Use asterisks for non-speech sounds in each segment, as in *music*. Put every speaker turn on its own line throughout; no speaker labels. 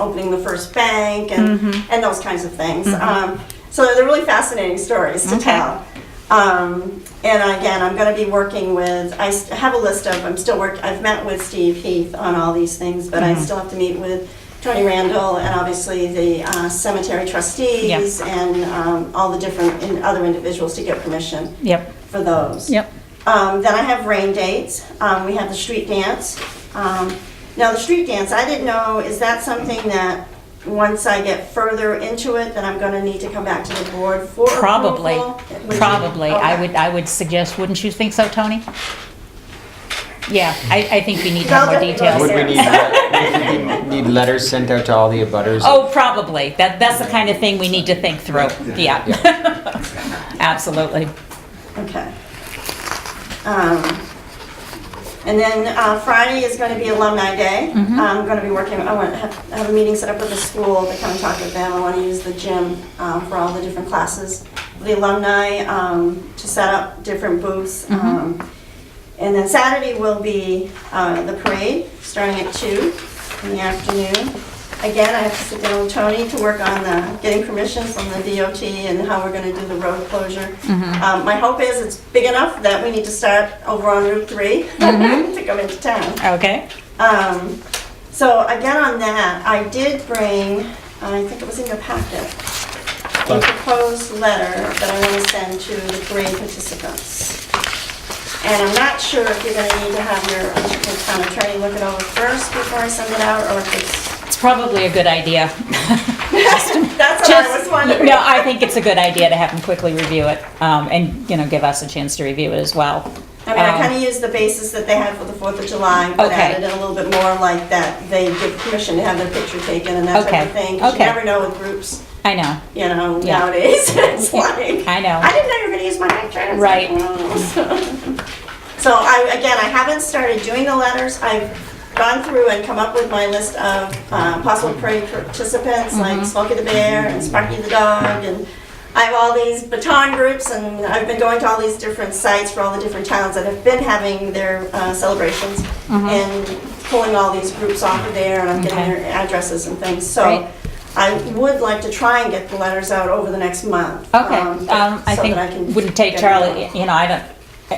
opening the first bank and, and those kinds of things. Um, so they're really fascinating stories to
Okay.
tell. Um, and again, I'm going to be working with, I s- have a list of, I'm still work, I've met with Steve Heath on all these things, but I still have to meet with Tony Randall and obviously the uh, cemetery trustees and um, all the different in, other individuals to get permission
Yep,
for those.
yep.
Um, then I have rain dates. Um, we have the street dance. Um, now the street dance, I didn't know, is that something that once I get further into it, that I'm gonna need to come back to the board for
Probably,
approval? Would you-
probably. I
okay.
would, I would suggest, wouldn't you think so, Tony? Yeah, I, I think we need to have
Well,
more
there you
details.
go.
Would we need, let- would we need letters sent out to all the abutters?
Oh, probably. That, that's the kind of thing we need to think through. Yeah. *laughs* Absolutely.
Okay. Um, and then, uh, Friday is gonna be Alumni Day. I'm gonna be working, I want, have, have a meeting set up with the school to come and talk with them. I wanna use the gym, um, for all the different classes. The alumni, um, to set up different booths. Um, and then Saturday will be, uh, the parade, starting at two in the afternoon. Again, I have to sit down with Tony to work on the, getting permission from the DOT and how we're gonna do the road closure. Um, my hope is it's big enough that we need to start over on Route Three *laughs* to come into town.
Okay.
Um, so again, on that, I did bring, I think it was in your packet, a proposed letter that I want to send to the parade participants. And I'm not sure if you're gonna need to have your your town attorney look it over first before I send it out, or if it's,
It's probably a good
*laughs*
idea. *laughs*
that's what I was
Just,
wondering.
no, I think it's a good idea to have them quickly review it, um, and, you know, give us a chance to review it as well.
I mean, I
Um,
kind of used the basis that they had for the Fourth of July, but
Okay.
added in a little bit more like that they give permission to have their picture taken and that type
Okay,
of thing. 'cause
okay.
You never know with groups,
I know,
you know,
Yeah.
nowadays. *laughs* It's like,
I know.
I didn't know you were gonna use my picture. It's like,
Right.
"Oh." *laughs* So I, again, I haven't started doing the letters. I've gone through and come up with my list of uh, possible parade participants,
Mm-hmm.
like Smokey the Bear and Sparky the Dog, and I have all these baton groups, and I've been going to all these different sites for all the different towns that have been having their uh, celebrations, and pulling all these groups off of there, and I'm getting
Mm-hmm. Okay.
their addresses and things,
Great.
so I would like to try and get the letters out over the next month.
okay,
um,
um, I
so
think,
that can
wouldn't take
get it out.
Charlie, you know, I don't,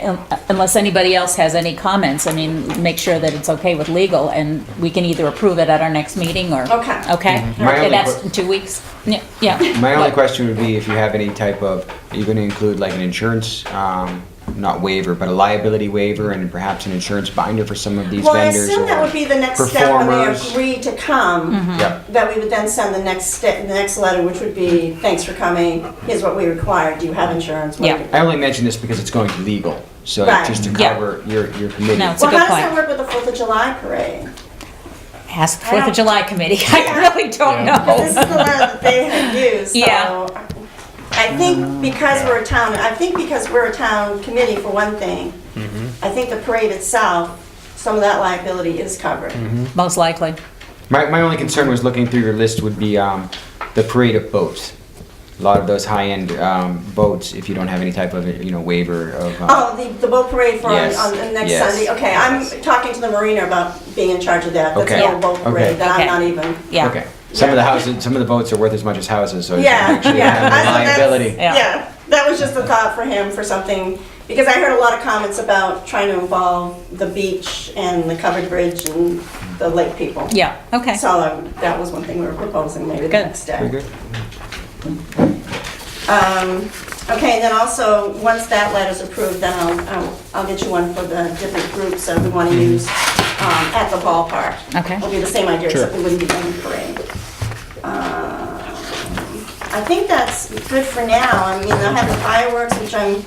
um, unless anybody else has any comments, I mean, make sure that it's okay with legal, and we can either approve it at our next meeting, or.
Okay.
Okay,
Mm-hmm. My only
that's
que-
in two weeks, yeah, yeah.
My only
But-
question would be if you have any type of, are you going to include like an insurance, um, not waiver, but a liability waiver and perhaps an insurance binder for some of these
Well, I
vendors?
assume that
or
would be the next step when they
performers?
agree to come,
Mm-hmm.
Yep.
that we would then send the next step, the next letter, which would be, thanks for coming, here's what we require, do you have insurance? What do you-"
Yeah.
I only mention this because it's going to legal, so
Right.
just to
Yeah.
cover your, your committee.
No, it's a
Well,
good
how does
point.
that work with the Fourth of July parade?
Ask the
I
Fourth
don't-
of July committee. *laughs* I really don't
Yeah.
This is the
know.
letter that they
*laughs*
had used,
Oh. Yeah.
so. I think because we're a town, I think because we're a town committee for one thing, I think the parade itself, some of that liability is covered.
Most likely.
My, my only concern was looking through your list would be um, the parade of boats. A lot of those high-end um, boats, if you don't have any type of, you know, waiver of. um,
Oh, the, the boat parade for on,
Yes,
on the next
yes.
Sunday. Okay, I'm talking to the marina about being in charge of that. That's
Okay.
the boat parade
Okay.
that
Okay.
I'm not even.
Yeah.
Okay. Some of the houses, some of the boats are worth as much as houses, so you
Yeah,
actually
yeah.
have
I-
the
so that's-
liability.
Yeah.
Yeah. that was just a thought for him for something because I heard a lot of comments about trying to involve the beach and the covered bridge and the lake people.
Yeah. Okay.
So um, that was one thing we were proposing maybe the
Good.
next day.
Very good.
Um, okay, and then also, once that letter's approved, then I'll, I'll, I'll get you one for the different groups that we want to use, um, at the ballpark.
Mm-hmm. Okay.
It'll be the same idea, except
Sure.
we wouldn't be doing a parade. Um, I think that's good for now. I mean, I have the fireworks, which I'm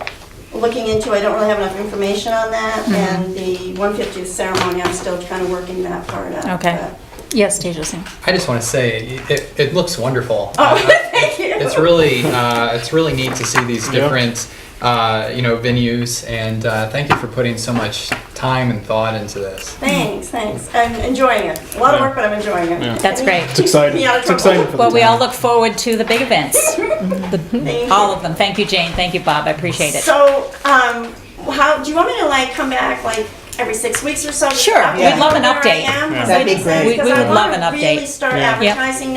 looking into. I don't really have enough information on that.
Mm-hmm.
And the 150th ceremony, I'm still kind of working that part out.
Okay.
but-
Yes, Tejas. yeah.
I just want to say it, it looks wonderful.
Oh,
Uh,
*laughs* thank you.
It's really uh, it's really neat to see these different uh, you know venues, and uh, thank you for putting so much time and thought into this.
Thanks, thanks. I'm enjoying it. A lot of work, but I'm enjoying it.
That's great.
It's exciting.
Yeah,
It's exciting for the
Well, we all
town.
look forward to the big events. The-
Thank
All
you.
of them. Thank you, Jane. Thank you, Bob. I appreciate it.
So, um, how, do you want me to like come back like every six weeks or so. just
Sure,
update
we'd love an
where I
update.
am, 'cause
That'd
I
be
just-
great.
We-
because
we
I
would love
wanna
an
Really
update.
start
Yeah.
Yep.
advertising